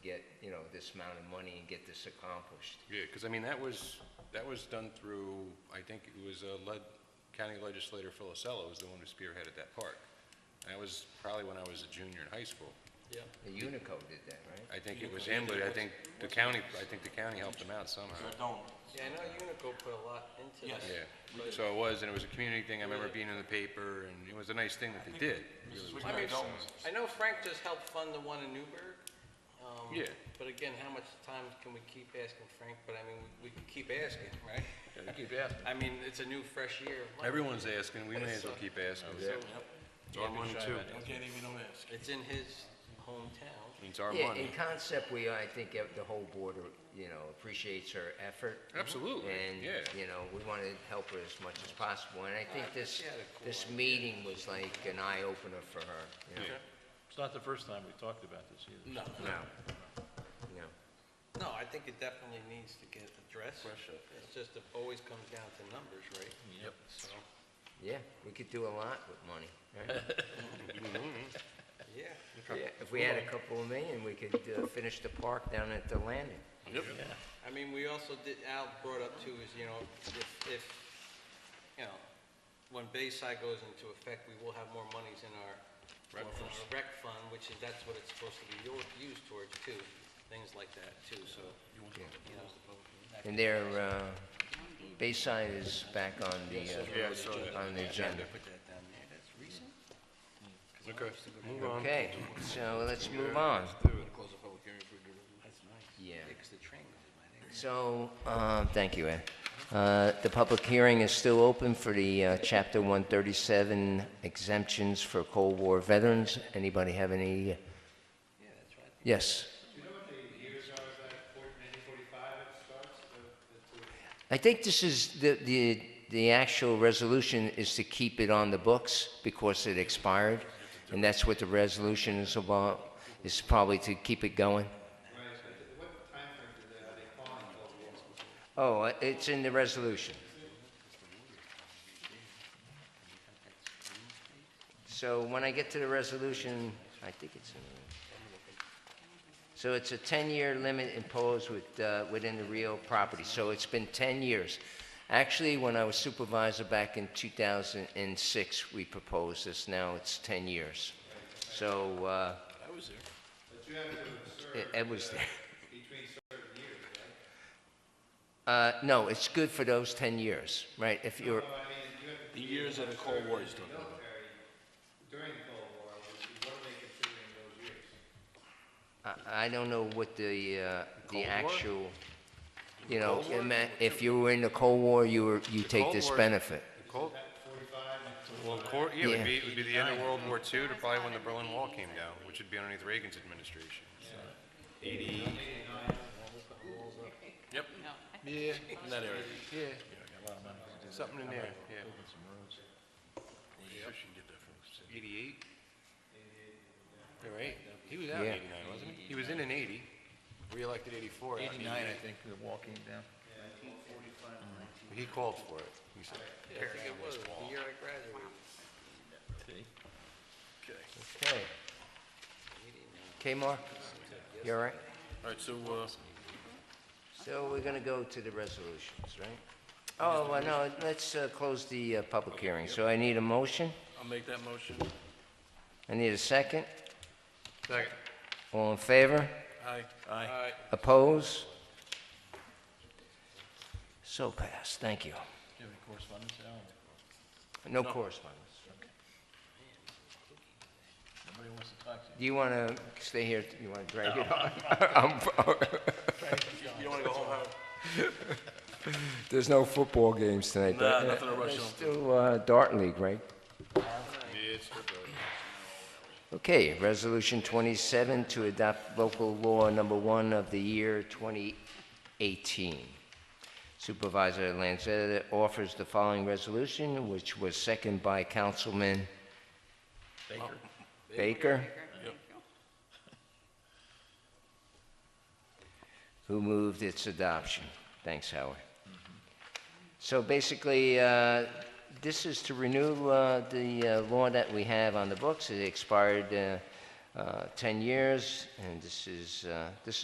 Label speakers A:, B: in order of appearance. A: this amount of money and get this accomplished.
B: Yeah, because I mean, that was, that was done through, I think it was uh, led, County Legislator Philisello was the one who spearheaded that park. That was probably when I was a junior in high school.
A: The Unico did that, right?
B: I think it was him, but I think the county, I think the county helped him out somehow.
C: Yeah, I know Unico put a lot into that.
B: Yeah, so it was, and it was a community thing, I remember being in the paper, and it was a nice thing that they did.
C: I mean, I know Frank just helped fund the one in Newburgh. um,
B: Yeah.
C: But again, how much time can we keep asking Frank? But I mean, we we can keep asking, right? I mean, it's a new, fresh year. of life.
B: Everyone's asking, we may as well keep asking.
C: So
B: It's our money too.
C: it's in his hometown.
B: It's our
A: Yeah, in
B: money.
A: concept, we, I think ev- the whole board, uh, you know, appreciates her effort.
B: Absolutely,
A: And,
B: yeah.
A: you know, we want to help her as much as possible, and I think this, this meeting was like an eye-opener for her, you know?
D: It's not the first time we talked about this either.
C: No,
A: No, no.
C: no, I think it definitely needs to get addressed. It's just, it always comes down to numbers, right?
D: Yep.
C: So,
A: Yeah, we could do a lot with money, right?
C: yeah.
A: Yeah, If we had a couple of million, we could uh, finish the park down at the landing.
C: I mean, we also did, Al brought up too, is, you know, if, if, you know, when Bayside goes into effect, we will have more monies in our,
B: Rec
C: well, in our rec fund, which is, that's what it's supposed to be u- used towards too, things like that too, so. you know,
A: And their, uh, Bayside is back on
B: Yeah, I saw
A: the,
B: that.
A: uh, on the agenda.
C: Put that down there, that's recent.
B: Okay, move on.
A: Okay, so let's move on.
C: Close the public hearing for. That's nice.
A: Yeah.
C: Yeah, 'cause the train goes by there.
A: So, um, thank you, Ed. Uh, The public hearing is still open for the uh, Chapter 137 exemptions for Cold War veterans. Anybody have any?
C: Yeah, that's right.
A: Yes.
E: Do you know what the years are, is that four- 1945 it starts, the, the two?
A: I think this is, the the the actual resolution is to keep it on the books because it expired, and that's what the resolution is about, is probably to keep it going.
E: Right, so th- what timeframe do they, are they calling Cold War?
A: Oh, uh, it's in the resolution. So when I get to the resolution, I think it's in the... So it's a 10-year limit imposed with, uh, within the real property, so it's been 10 years. Actually, when I was supervisor back in 2006, we proposed this, now it's 10 years. So... I was there. But you have to Ed was there. Uh, no, it's good for those 10 years, right? If you're,
F: The years of the Cold War is done.
E: During the Cold War, was- what are they considering those years?
A: I, I don't know what the, uh, the actual, you know, ima- if you were in the Cold War, you were, you take
B: Cold
A: this
B: War-
A: benefit.
B: Cold- Well, cor- yeah, it
A: Yeah.
B: would be, it would be the end of World War II to probably when the Berlin Wall came down, which would be underneath Reagan's administration. Eighty. Yep.
F: Yeah, in that area.
B: Yeah. Something in there, yeah. Eighty-eight? All right, he was out in
A: Yeah.
B: eighty-nine, wasn't he? He was in an eighty, reelected eighty-four. out in
D: Eighty-nine, I think, the wall came down.
B: He called for it. He said,
C: Yeah, I think it was, the year I graduated.
D: See?
A: Okay. Okay, Mark? You all right?
F: All right, so, uh,
A: So we're gonna go to the resolutions, right? Oh, well, no, let's, uh, close the, uh, public hearing. So I need a motion,
F: I'll make that motion.
A: I need a second.
B: Second.
A: All in favor?
F: Aye. Aye.
A: Oppose? So passed, thank you.
D: Do you have any correspondence, Alan?
A: No correspondence.
D: Nobody wants to talk to you.
A: Do you want to stay here, you want to drag it on? I'm-
F: You don't wanna go home, Howard?
A: There's no football games tonight.
F: Nah,
A: though.
F: nothing to rush
A: There's
F: on.
A: Still uh, Dart League, right?
B: Yeah, it's good, though.
A: Okay, Resolution 27 to adopt local law number one of the year 2018. Supervisor Lanzetta offers the following resolution, which was seconded by Councilman
D: Baker?
A: Baker, who moved its adoption. Thanks, Howard. So basically, uh, this is to renew uh, the uh, law that we have on the books. It expired uh, uh, 10 years, and this is, uh, this